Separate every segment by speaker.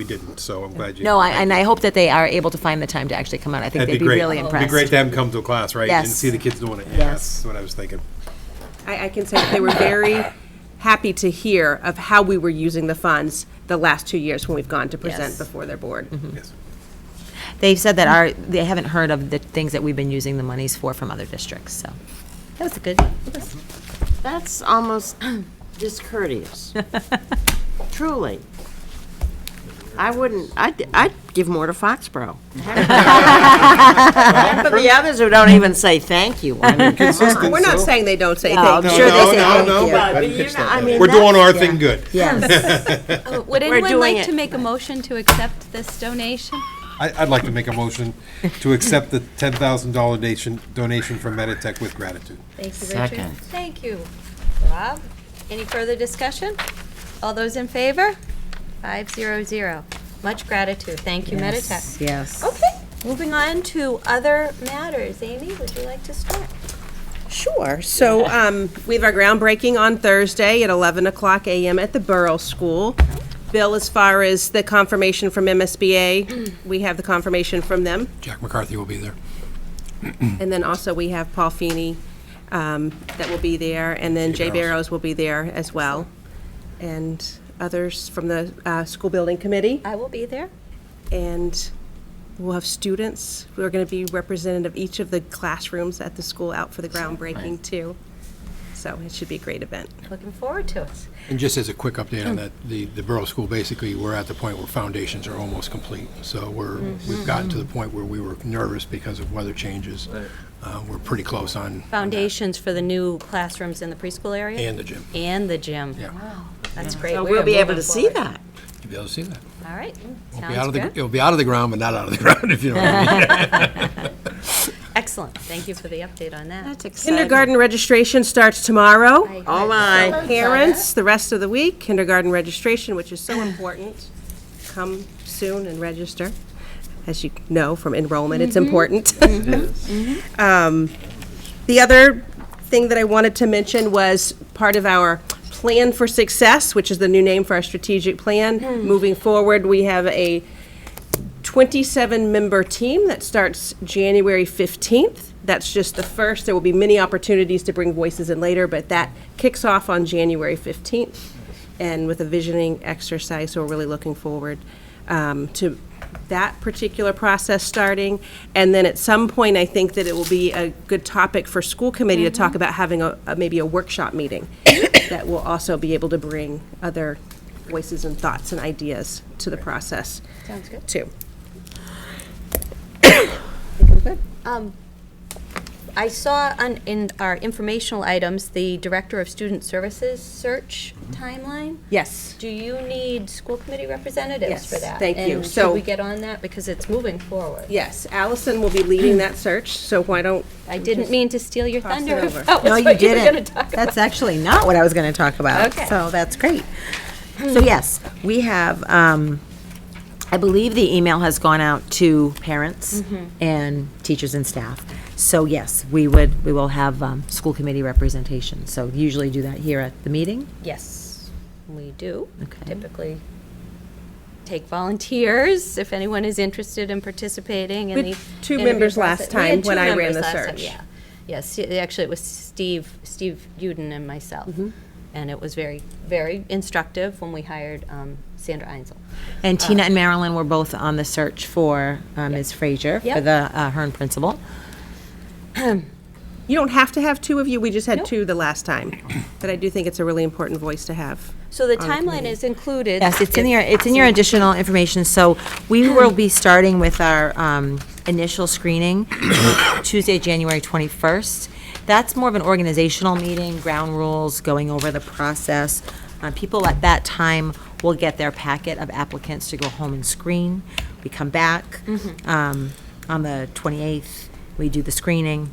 Speaker 1: we didn't, so I'm glad you.
Speaker 2: No, I- and I hope that they are able to find the time to actually come out. I think
Speaker 1: That'd
Speaker 2: they'd be
Speaker 1: great.
Speaker 2: really
Speaker 1: It'd be great
Speaker 2: impressed.
Speaker 1: to have them come to a class, right? And
Speaker 2: Yes.
Speaker 1: see the kids doing it. Yeah,
Speaker 2: Yes.
Speaker 1: That's what I was thinking.
Speaker 3: I, I can say that they were very happy to hear of how we were using the funds the last two years when we've gone to
Speaker 2: Yes.
Speaker 3: present before their board.
Speaker 1: Yes.
Speaker 2: They've said that our, they haven't heard of the things that we've been using the monies for from other districts, so. That was a good.
Speaker 4: That's almost discourteous. Truly. I wouldn't, I'd, I'd give more to Foxborough. And For the others who don't even say thank you. I mean,
Speaker 3: We're not saying they don't say
Speaker 4: No,
Speaker 3: thank
Speaker 4: I'm
Speaker 3: you.
Speaker 4: sure they say
Speaker 1: No,
Speaker 4: thank
Speaker 1: no,
Speaker 4: you.
Speaker 1: no. I
Speaker 4: but
Speaker 1: didn't
Speaker 4: you're
Speaker 1: catch
Speaker 4: not-
Speaker 1: that.
Speaker 4: I mean,
Speaker 1: We're doing our
Speaker 4: that's- yeah.
Speaker 1: thing good.
Speaker 4: Yes.
Speaker 5: Would anyone
Speaker 4: doing
Speaker 5: like to
Speaker 4: it.
Speaker 5: make a motion to accept this donation?
Speaker 1: I, I'd like to make a motion to accept the ten thousand dollar donation, donation from Meditech with gratitude.
Speaker 5: Thank you, Richard.
Speaker 4: Second.
Speaker 5: Thank you, Rob. Any further discussion? All those in favor? Five zero zero. Much gratitude. Thank you, Meditech.
Speaker 4: Yes.
Speaker 5: Okay, moving on to other matters. Amy, would you like to start?
Speaker 3: Sure. So um, we have our groundbreaking on Thursday at 11 o'clock a.m. at the Borough School. Bill, as far as the confirmation from MSBA, we have the confirmation from them.
Speaker 1: Jack McCarthy will be there.
Speaker 3: And then also, we have Paul Feeney um, that will be there, and then Jay Barrows will be there as well, and others from the uh, School Building Committee.
Speaker 5: I will be there.
Speaker 3: And we'll have students, who are going to be representative of each of the classrooms at the school out for the groundbreaking, too. So it should be a great event.
Speaker 5: Looking forward to it.
Speaker 6: And just as a quick update
Speaker 5: Oh.
Speaker 6: on that, the, the Borough School, basically, we're at the point where foundations are almost complete. So we're,
Speaker 5: Mm.
Speaker 6: we've gotten to the point where we were nervous because of weather changes. Uh, We're pretty close on,
Speaker 5: Foundations for the new classrooms in the preschool area?
Speaker 6: and the gym.
Speaker 5: And the gym.
Speaker 6: Yeah.
Speaker 5: That's great.
Speaker 4: So
Speaker 5: We
Speaker 4: we'll
Speaker 5: are
Speaker 4: be able
Speaker 5: moving
Speaker 4: to see
Speaker 5: forward.
Speaker 4: that.
Speaker 6: You'll be able to see that.
Speaker 5: All right,
Speaker 6: It'll be out
Speaker 5: sounds
Speaker 6: of the-
Speaker 5: good.
Speaker 6: It'll be out of the ground, but not out of the ground, if you know what I mean.
Speaker 5: Excellent. Thank you for the update on that.
Speaker 4: That's exciting.
Speaker 3: Kindergarten registration starts tomorrow.
Speaker 5: I-
Speaker 4: Oh, my.
Speaker 3: Parents, the rest of the week, kindergarten registration, which is so important. Come soon and register. As you know from enrollment, it's important. Um, The other thing that I wanted to mention was part of our Plan for Success, which is the new name for our strategic plan. Moving forward, we have a 27-member team that starts January 15th. That's just the first. There will be many opportunities to bring voices in later, but that kicks off on January 15th and with a visioning exercise. So we're really looking forward um, to that particular process starting. And then at some point, I think that it will be a good topic for school committee to talk about having a, a- maybe a workshop meeting that will also be able to bring other voices and thoughts and ideas to the process. Sounds good. Too.
Speaker 5: I saw on, in our informational items, the Director of Student Services search timeline.
Speaker 3: Yes.
Speaker 5: Do you need school committee representatives for
Speaker 3: Yes,
Speaker 5: that?
Speaker 3: thank you.
Speaker 5: And should
Speaker 3: So-
Speaker 5: we get on that? Because it's moving forward.
Speaker 3: Yes, Allison will be leading that search, so why don't,
Speaker 5: I didn't mean to steal your
Speaker 3: Cross it
Speaker 5: thunder.
Speaker 3: over.
Speaker 5: Oh,
Speaker 2: No,
Speaker 5: that's
Speaker 2: you
Speaker 5: what were gonna
Speaker 2: didn't.
Speaker 5: talk about.
Speaker 2: That's actually not what I was going to talk about.
Speaker 5: Okay.
Speaker 2: So that's great. So yes, we have, um, I believe the email has gone out to parents
Speaker 5: Mm-hmm.
Speaker 2: and teachers and staff. So yes, we would, we will have um, school committee representation. So usually do that here at the meeting.
Speaker 5: Yes, we do.
Speaker 2: Okay.
Speaker 5: Typically take volunteers if anyone is interested in participating in
Speaker 3: We
Speaker 5: the.
Speaker 3: had two
Speaker 5: interview
Speaker 3: members last
Speaker 5: process. We had
Speaker 3: time
Speaker 5: two
Speaker 3: when I ran
Speaker 5: members
Speaker 3: the
Speaker 5: last time,
Speaker 3: search.
Speaker 5: Yeah, yes, y- actually, it was Steve, Steve Uden and myself.
Speaker 3: Mm-hmm.
Speaker 5: And it was very, very instructive when we hired um, Sandra Einzel.
Speaker 2: And
Speaker 5: Oh.
Speaker 2: Tina and Marilyn were both on the search for uh, Ms. Frazier for
Speaker 5: Yep.
Speaker 2: the uh, Hearn principal.
Speaker 3: you don't have to have two of you, we just had
Speaker 5: Nope.
Speaker 3: two the last time. But I do think it's a really important voice to have.
Speaker 5: So the timeline is included.
Speaker 2: Yes, it's in your, it's in your additional information, so we will be starting with our um, initial screening Tuesday, January 21st. That's more of an organizational meeting, ground rules, going over the process. Uh, People at that time will get their packet of applicants to go home and screen. We come back um, on the 28th, we do the screening.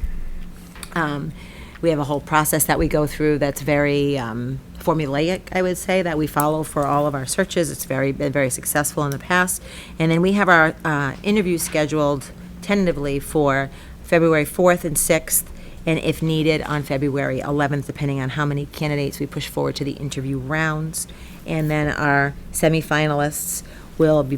Speaker 2: Um, we have a whole process that we go through that's very um, formulaic, I would say, that we follow for all of our searches. It's very been very successful in the past, and then we have our uh, interview scheduled tentatively for February 4th and 6th, and if needed, on February 11th, depending on how many candidates we push forward to the interview rounds, and then our semifinalists will be